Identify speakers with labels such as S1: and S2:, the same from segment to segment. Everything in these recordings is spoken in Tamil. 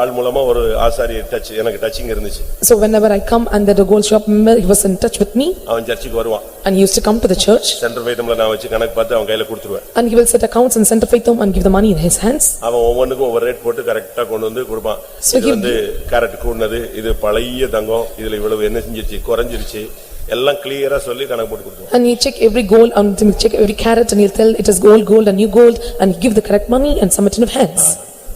S1: ஆள் மூலமா ஒரு ஆசாரிய டச் எனக்கு டச்சிங் இருந்துச்சு
S2: So whenever I come and the gold shop, he was in touch with me
S1: அவன் சர்ச்சுக்கு வருவான்
S2: and he used to come to the church
S1: centre ஃபைட்டம்ல நான் வச்சு கணக்கு பார்த்து அவன் கையில கொடுத்துருவேன்
S2: and he will set accounts and send to faith home and give the money in his hands.
S1: அவன் ஒவ்வொன்றுக்கும் ஒவ்வொரு ரேட் போட்டு கரெக்டா கொண்டு வந்து கொடுப்பான்
S2: So
S1: இது
S2: he-
S1: வந்து கேரட் கூடினது இது பழைய தங்கம் இதுல இவ்வளவு என்ன செஞ்சிருச்சு குறைஞ்சிருச்சு எல்லாம் கிளியரா சொல்லி கணக்கு போட்டு கொடுத்துருவான்
S2: And he check every gold and he'll check every carat and he'll tell it is gold, gold and new gold and he give the correct money and submit in of hands.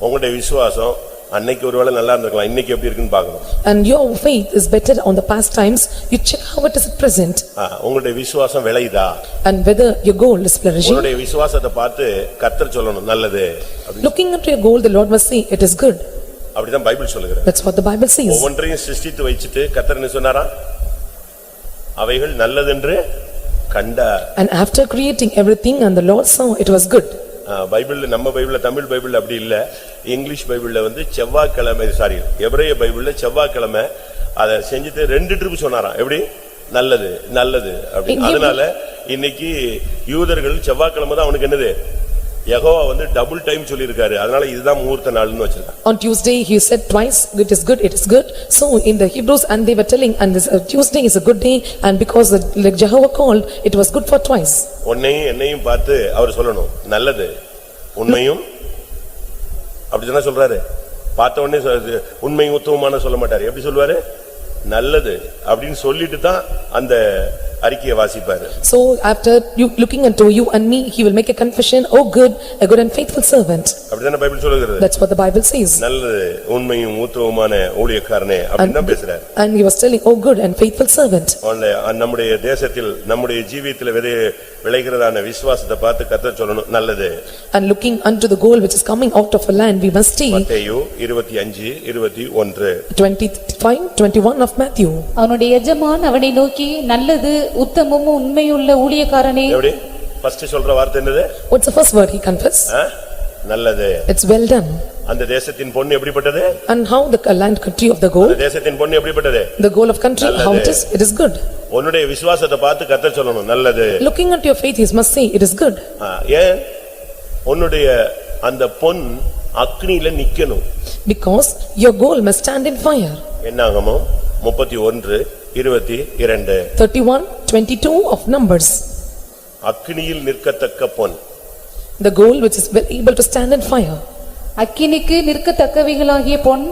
S1: உங்களுடைய விசுவாசம் அன்னைக்கு ஒருவேளை நல்லா இருந்திருக்கலாம் இன்னைக்கு எப்படி இருக்குன்னு பார்க்கணும்
S2: And your faith is better on the past times, you check how it is at present
S1: ஆ, உங்களுடைய விசுவாசம் விளையுதா
S2: and whether your gold is flourishing.
S1: உன்னுடைய விசுவாசத்தை பார்த்து கர்த்தர் சொல்லணும் நல்லது அப்படின்னு.
S2: Looking into your gold, the Lord must say it is good.
S1: அப்படிதான் பைபிள் சொல்லுகிறது
S2: That's what the Bible says.
S1: ஒவ்வொன்றையும் சிருஷ்டித்து வச்சிட்டு கர்த்தர் என்ன சொன்னாரா அவைகள் நல்லதென்று கண்டார்
S2: And after creating everything and the Lord saw it was good.
S1: ஆ, பைபிள்ல நம்ம பைபிள்ல தமிழ் பைபிள்ல அப்படி இல்ல இங்கிலீஷ் பைபிள்ல வந்து செவ்வாய்க்கிழமை சாரி எபிரேய பைபிள்ல செவ்வாய்க்கிழமை அதை செஞ்சுட்டு ரெண்டு ட்ரிப் சொன்னாராம் எப்படி நல்லது நல்லது அப்படி
S2: இங்க-
S1: அதனால இன்னைக்கு யூதர்கள் செவ்வாய்க்கிழமை தான் அவனுக்கு என்னது யெகோவா வந்து டபுள் டைம் சொல்லியிருக்காரு அதனால இதுதான் முகூர்த்த நாள்னு வச்சிருக்கான்
S2: On Tuesday, he said twice, "It is good, it is good." So in the Hebrews, and they were telling, and this uh, Tuesday is a good day, and because the- like Jehovah called, it was good for twice.
S1: உன்னையும் என்னையும் பார்த்து அவர் சொல்லணும் நல்லது உண்மையும் அப்படிதானே சொல்றாரு பார்த்த உடனே சொல்றது, உண்மையும் உத்தமமான சொல்ல மாட்டாரு எப்படி சொல்லுவாரு நல்லது அப்படின்னு சொல்லிட்டு தான் அந்த அறிக்கையை வாசிப்பாரு
S2: So after you looking unto you and me, he will make a confession, "Oh good, a good and faithful servant."
S1: அப்படிதானே பைபிள் சொல்லுகிறது
S2: That's what the Bible says.
S1: நல்லது உண்மையும் உத்தமமான ஊழியக்காரனே அப்படின்னு தான் பேசுறாரு
S2: And he was telling, "Oh good and faithful servant."
S1: அவனுடைய, அஹ், நம்முடைய தேசத்தில் நம்முடைய ஜீவியத்தில் விதை விளைகிறதான விசுவாசத்தை பார்த்து கத்த சொல்லணும் நல்லது
S2: And looking unto the goal which is coming out of a land, we must see
S1: மத்தேயு இருபத்தி அஞ்சு இருபத்தி ஒன்று
S2: 25, 21 of Matthew.
S3: அவனுடைய எஜமான் அவனை நோக்கி நல்லது உத்தமமும் உண்மையுள்ள ஊழியக்காரனே
S1: எப்படி ஃபர்ஸ்ட் சொல்ற வார்த்தை என்னது
S2: What's the first word he confessed?
S1: ஆ? நல்லது
S2: It's well done.
S1: அந்த தேசத்தின் பொண்ணு எப்படிப்பட்டது
S2: And how the land country of the goal?
S1: அந்த தேசத்தின் பொண்ணு எப்படிப்பட்டது
S2: The goal of country, how it is, it is good.
S1: உன்னுடைய விசுவாசத்தை பார்த்து கர்த்தர் சொல்லணும் நல்லது
S2: Looking at your faith, he must say, it is good.
S1: ஆ, ஏன் உன்னுடைய அந்த பொன் அக்னியில நிக்கணும்
S2: Because your goal must stand in fire.
S1: என்னாகமோ முப்பத்தி ஒன்று இருபத்தி இரண்டு
S2: Thirty-one, twenty-two of Numbers.
S1: அக்னியில் நிற்கத்தக்க பொன்
S2: The goal which is well able to stand in fire.
S3: அக்கினிக்கு நிற்கத்தக்கவைகளாகிய பொன்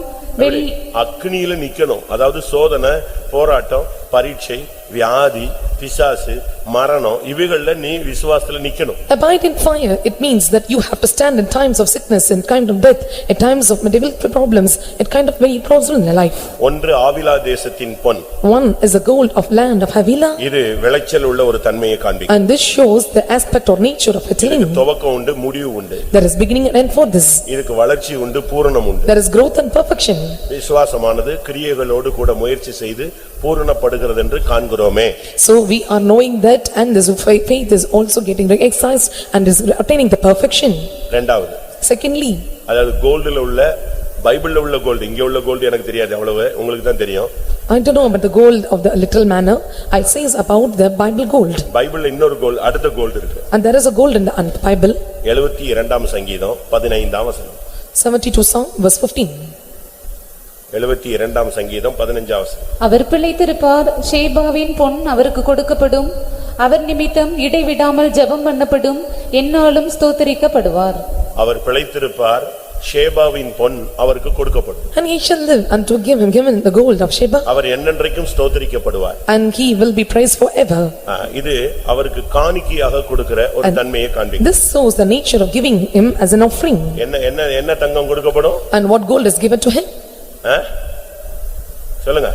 S3: வெள்ளி
S1: அக்னியில நிக்கணும் அதாவது சோதனை போராட்டம் பரீட்சை வியாதி பிசாசு மரணம் இவைகள்ல நீ விசுவாசத்துல நிக்கணும்
S2: Abide in fire, it means that you have to stand in times of sickness, in kind of death, in times of medieval problems, in kind of many problems in life.
S1: ஒன்று ஆவிலா தேசத்தின் பொன்
S2: One is the goal of land of Havila,
S1: இது விளைச்சல் உள்ள ஒரு தன்மையை காண்பிக்கும்
S2: and this shows the aspect or nature of it.
S1: இதுக்கு
S2: in.
S1: துவக்கம் உண்டு முடிவு உண்டு
S2: There is beginning and end for this.
S1: இதுக்கு வளர்ச்சி உண்டு பூரணம் உண்டு
S2: There is growth and perfection.
S1: விசுவாசமானது கிரியைகளோடு கூட முயற்சி செய்து பூரணப்படுகிறது என்று காண்கிறோமே
S2: So we are knowing that and this fa- faith is also getting exercised and is attaining the perfection.
S1: இரண்டாவது
S2: Secondly,
S1: அதாவது கோல்டுல உள்ள பைபிள்ல உள்ள கோல்டு இங்க உள்ள கோல்டு எனக்கு தெரியாது அவ்வளவு உங்களுக்கு தான் தெரியும்
S2: I don't know about the gold of the literal manner, I says about the Bible gold.
S1: பைபிள்ல இன்னொரு கோல்டு அடுத்த கோல்டு இருக்கு
S2: And there is a gold in the un- Bible,
S1: எழுபத்தி இரண்டாம் சங்கீதம் பதினைந்தாம் வசனம்
S2: seventy-two song, verse fifteen.
S1: எழுபத்தி இரண்டாம் சங்கீதம் பதினைஞ்சாம் வசனம்
S3: அவர் பிழைத்திருப்பார் ஷேபாவின் பொன் அவருக்கு கொடுக்கப்படும் அவர் நிமித்தம் இடைவிடாமல் ஜெபம் பண்ணப்படும் என்னாலும் ஸ்தோத்திரிக்கப்படுவார்
S1: அவர் பிழைத்திருப்பார் ஷேபாவின் பொன் அவருக்கு கொடுக்கப்படும்
S2: And he shall live and to give him given the gold of Sheba
S1: our என்னென்றைக்கும் ஸ்தோத்திரிக்கப்படுவார்
S2: and he will be praised forever.
S1: ஆ, இது அவருக்கு காணிக்கையாக கொடுக்கிற ஒரு தன்மையை காண்பிக்கும்
S2: This shows the nature of giving him as an offering.
S1: என்ன என்ன என்ன தங்கம் கொடுக்கப்படும்
S2: And what gold is given to him?
S1: ஆ? சொல்லுங்க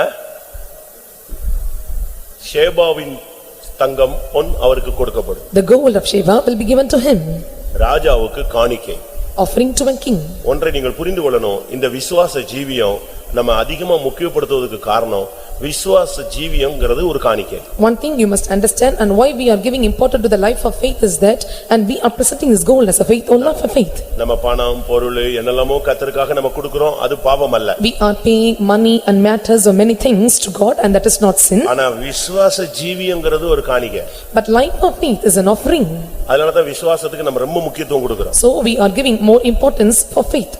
S1: ஆ? ஷேபாவின் தங்கம் பொன் அவருக்கு கொடுக்கப்படும்
S2: The gold of Sheba will be given to him,
S1: ராஜாவுக்கு காணிக்கை
S2: offering to a king.
S1: ஒன்றை நீங்கள் புரிந்து கொள்ளணும் இந்த விசுவாச ஜீவியம் நம்ம அதிகமா முக்கியப்படுத்துவதற்கு காரணம் விசுவாச ஜீவியம்ங்கிறது ஒரு காணிக்கை
S2: One thing you must understand and why we are giving importance to the life of faith is that and we are presenting this goal as a faith or life of faith.
S1: நம்ம பணம் பொருள் என்னெல்லாமோ கத்தருக்காக நம்ம கொடுக்கிறோம் அது பாவம் அல்ல
S2: We are paying money and matters or many things to God and that is not sin.
S1: ஆனா விசுவாச ஜீவியம்ங்கிறது ஒரு காணிக்கை
S2: But life of faith is an offering.
S1: அதனாலதான் விசுவாசத்துக்கு நம்ம ரொம்ப முக்கியத்துவம் கொடுக்கிறோம்
S2: So we are giving more importance for faith.